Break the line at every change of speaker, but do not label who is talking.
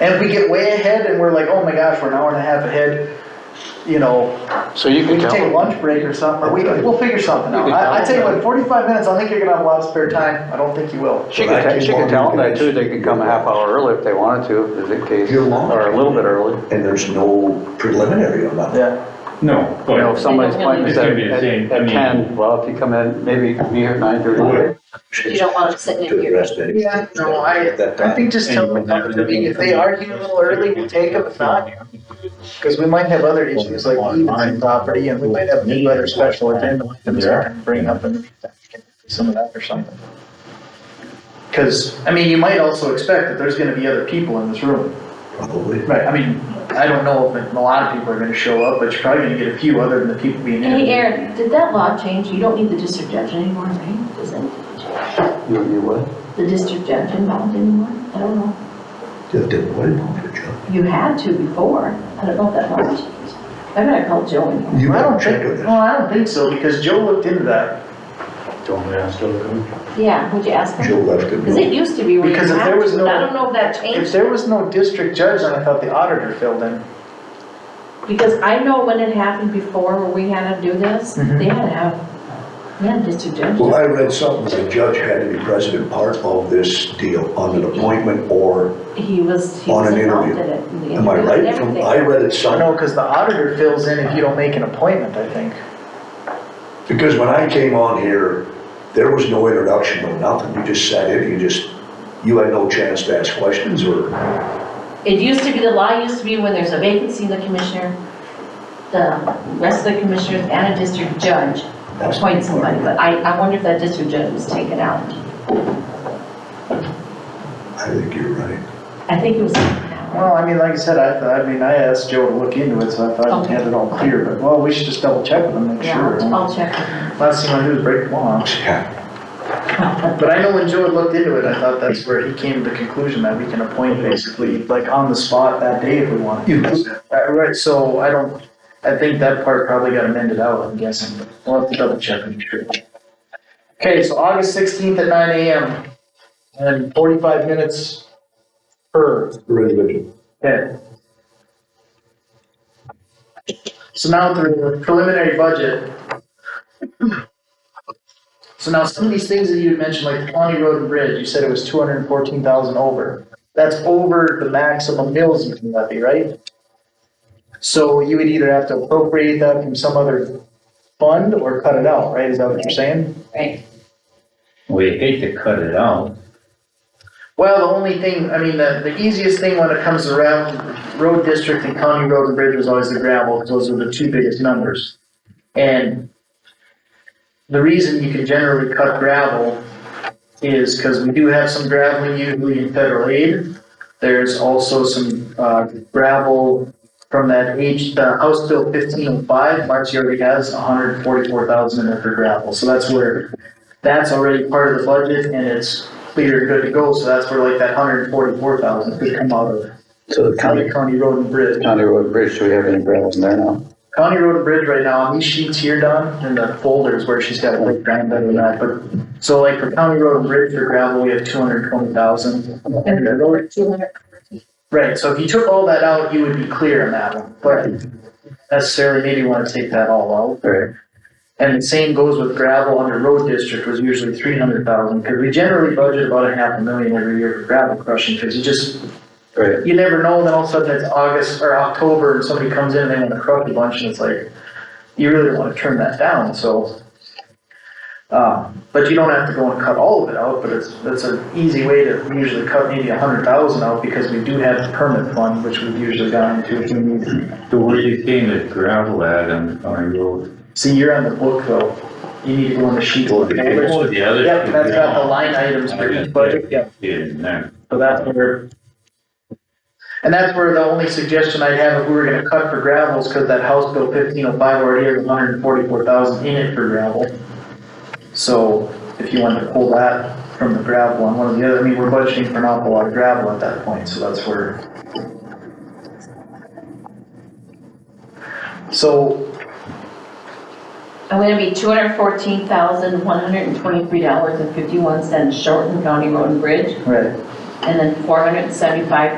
And we get way ahead and we're like, oh my gosh, we're an hour and a half ahead, you know,
So you
we can
can tell
take a
them.
lunch break or something, or we, we'll figure something out.
You can
I, I
tell
tell you
them.
what, forty-five minutes, I think you're gonna have a lot of spare time, I don't think you will.
She can, te- she can tell them that too, they can come a half hour early if they wanted to, if in case,
Your lunch.
or a little bit early.
And there's no preliminary on that.
Yeah,
No,
You know, if
but
somebody's appointment is
It's
at,
gonna be the same,
at
I
at
mean-
ten, well, if you come in, maybe be here at nine thirty.
Right.
You don't want them sitting in
To the
here.
rest of it.
yeah, no, I, I think just tell them, I mean, if they argue a little early, we'll take them, if not, Because we might have other issues like easement property and we might have new other special agenda items that can bring up and some of that or something. Because, I mean, you might also expect that there's gonna be other people in this room.
Probably.
Right. I mean, I don't know if a lot of people are gonna show up, but you're probably gonna get a few other than the people being
Hey,
interviewed.
Aaron, did that law change? You don't need the district judge anymore, right? Does it?
You, you would?
The district judge involved anymore? I don't know.
Did, did, what did you jump?
You had to before. I don't know if that law changed. I bet I called Joe and
You
I don't
don't
think,
check with
no,
it.
I don't think so, because Joe looked into that.
Yeah, would you ask
Joe
them?
left it.
Because it used to be where you
Because if
had
there was
to, but I
no-
don't know if that
If
changed.
there was no district judge, then I thought the auditor filled in.
Because I know when it happened before where we had to do this,
Mhm.
they had to have, they had a district judge.
Mm-hmm. Well, I read something, the judge had to be president part of this deal on an appointment or,
He was, he
On
was
an
involved in
interview.
it. in the
am I
interview and
right? From-
everything.
I read it
I know,
somewhere.
because the auditor fills in if you don't make an appointment, I think.
Because when I came on here, there was no introduction, no nothing. You just sat in, you just, you had no chance to ask questions or
It used to be, the law used to be when there's a vacancy, the commissioner, the rest of the commissioners and a district judge appoint somebody, but I, I wonder if that district judge was taken out.
I think you're right.
I think it was taken out.
Well, I mean, like I said, I, thought- I mean, I asked Joe to look into it, so I thought he had it all clear, but, well, we should just double check with him, make
Yeah,
sure.
I'll- I'll check.
Last thing I do is break the law,
Yeah,
but I know when Joe had looked into it, I thought that's where he came to the conclusion that we can appoint basically, like, on the spot that day if we want.
You-
Uh, Right, so I don't, I think that part probably got amended out, I'm guessing, but we'll have to double check and make sure. Okay, so August sixteenth at nine AM, and forty-five minutes per.
We're individual.
Okay. So now through the preliminary budget. So now some of these things that you had mentioned, like the Pawnee Road and Bridge, you said it was two hundred and fourteen thousand over. That's over the maximum mills you can levy, right? So you would either have to appropriate that from some other fund or cut it out, right? Is that what you're saying?
Right.
We hate to cut it out.
Well, the only thing, I mean, the, the easiest thing when it comes to round, road district and county road and bridge was always the gravel, because those are the two biggest numbers. And the reason you can generally cut gravel is because we do have some graveling usually in federal aid. There's also some, uh, gravel from that H, the House Bill fifteen oh five, Marcy already has hundred and forty-four thousand in it for gravel, so that's where, that's already part of the budget and it's clear, good to go, so that's where like that hundred and forty-four thousand could come out of.
So the
County, County Road and Bridge.
County Road Bridge, do we have any gravel in there now?
County Road and Bridge right now, on these sheets here, Don, in the folders where she's got like grand better than that, but, so like for County Road and Bridge for gravel, we have two hundred and twenty thousand.
Two hundred.
Right, so if you took all that out, you would be clear on that one, but necessarily maybe wanna take that all out.
Right.
And the same goes with gravel under road district was usually three hundred thousand, cause we generally budget about a half a million every year for gravel crushing, cause you just
Right,
you never know, then all of a sudden it's August or October and somebody comes in and they want to crush a bunch and it's like, you really don't want to turn that down, so. Uh, but you don't have to go and cut all of it out, but it's, that's an easy way to usually cut maybe a hundred thousand out because we do have the permit fund, which we've usually gotten to if we need. to.
So where are you seeing the gravel at on the county road?
See, you're on the book though, you need to go on the sheet. Yep,
the other.
that's got the line items for each budget, yep.
In there.
So that's where. And that's where the only suggestion I'd have if we were gonna cut for gravels, cause that House Bill fifteen oh five already has hundred and forty-four thousand in it for gravel. So if you wanted to pull that from the gravel on one of the other, I mean, we're budgeting for an awful lot of gravel at that point, so that's where. So,
I'm gonna be two hundred fourteen thousand, one hundred and twenty-three dollars and fifty-one cents short in County Road and Bridge,
right,
and then four hundred and seventy-five